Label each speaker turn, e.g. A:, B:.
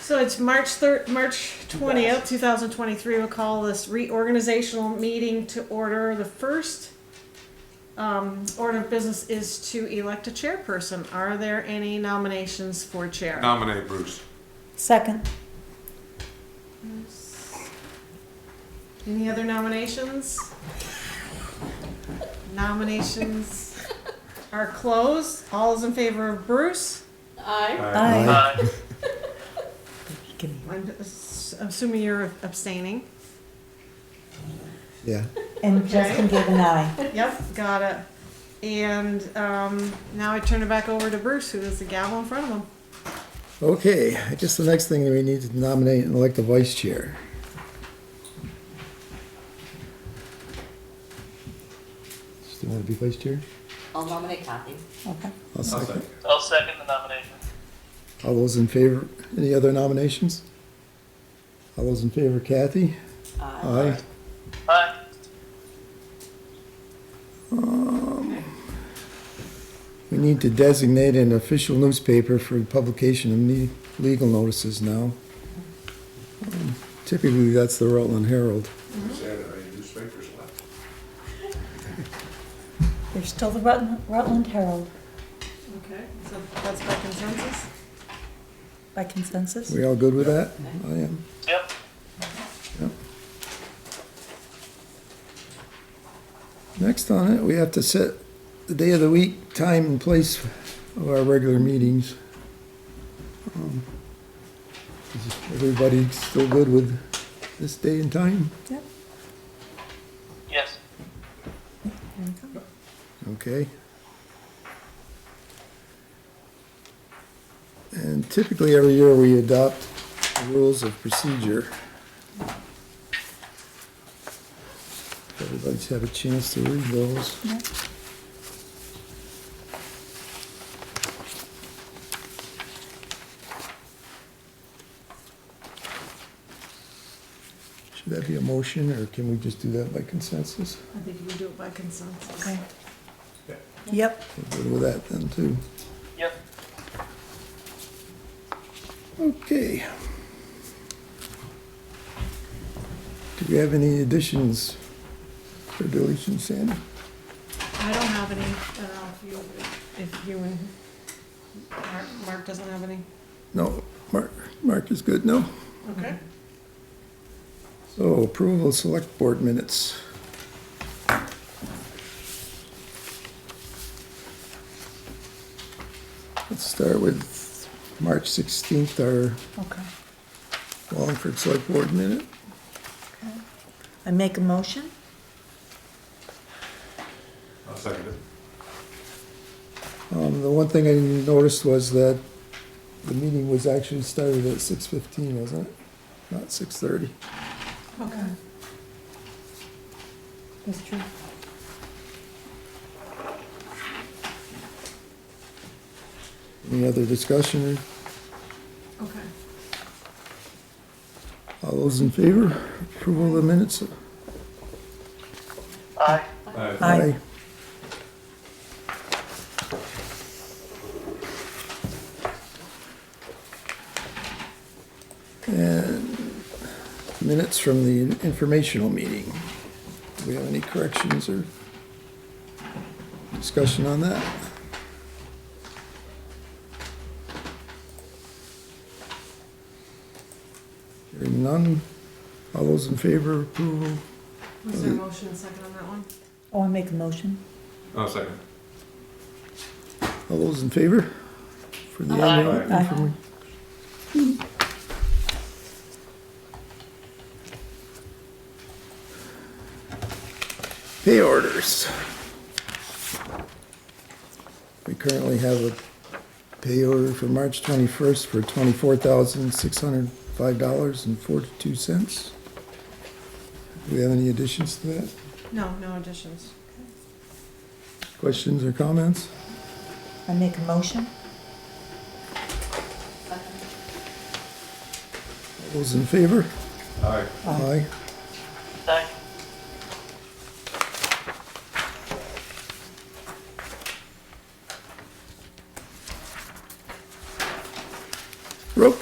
A: So it's March thir- March twentieth, two thousand twenty-three. We'll call this reorganizational meeting to order. The first um, order of business is to elect a chairperson. Are there any nominations for chair?
B: Nominate Bruce.
C: Second.
A: Any other nominations? Nominations are closed. All is in favor of Bruce?
D: Aye.
C: Aye.
A: I'm ass- assuming you're abstaining.
E: Yeah.
C: And Justin gave an eye.
A: Yep, got it. And um, now I turn it back over to Bruce, who has the gavel in front of him.
E: Okay, I guess the next thing we need to nominate and elect a vice chair. Still want to be vice chair?
D: I'll nominate Kathy.
C: Okay.
E: I'll second.
F: I'll second the nomination.
E: All those in favor, any other nominations? All those in favor, Kathy?
D: Aye.
E: Aye.
F: Aye.
E: Um, We need to designate an official newspaper for publication of ne- legal notices now. Um, Typically, that's the Rutland Herald.
B: Sad, I had newspapers left.
C: There's still the Rutland, Rutland Herald
A: Okay. So that's by consensus?
C: by consensus.
E: We all good with that? I am.
F: Yep.
E: Next on it, we have to set the day of the week, time and place of our regular meetings. Um, is Everybody still good with this day and time?
C: Yep.
F: Yes.
C: there we go.
E: Okay. And typically, every year, we adopt rules of procedure. If Everybody's had a chance to read those.
C: Yep.
E: Should that be a motion, or can we just do that by consensus?
A: I think we do it by consensus.
C: Okay. Yep.
E: We're good with that then, too.
F: Yep.
E: Okay. Do we have any additions or deletions, Sandy?
A: I don't have any. I don't know if you, if you and Mark, Mark doesn't have any.
E: No, Mark, Mark is good, no?
A: Okay.
E: So approval of select board minutes. Let's start with March 16th, our
C: Okay.
E: Wallingford Select Board minute.
C: I make a motion.
B: I'll second it.
E: Um, the one thing I noticed was that the meeting was actually started at six fifteen, wasn't it? Not six thirty.
A: Okay.
C: That's true.
E: Any other discussion?
A: Okay.
E: All those in favor? Approval of the minutes?
F: Aye.
C: Aye.
E: And minutes from the informational meeting. Do we have any corrections or discussion on that? Hearing none. All those in favor, approval?
A: Was there a motion and second on that one?
C: Oh, I make a motion.
B: I'll second.
E: All those in favor? For the annual
B: Aye.
E: informa- Pay orders. We currently have a pay order for March 21st for $24,605.42. Do we have any additions to that?
A: No, no additions.
E: Questions or comments?
C: I make a motion.
E: All those in favor?
B: Aye.
E: Aye.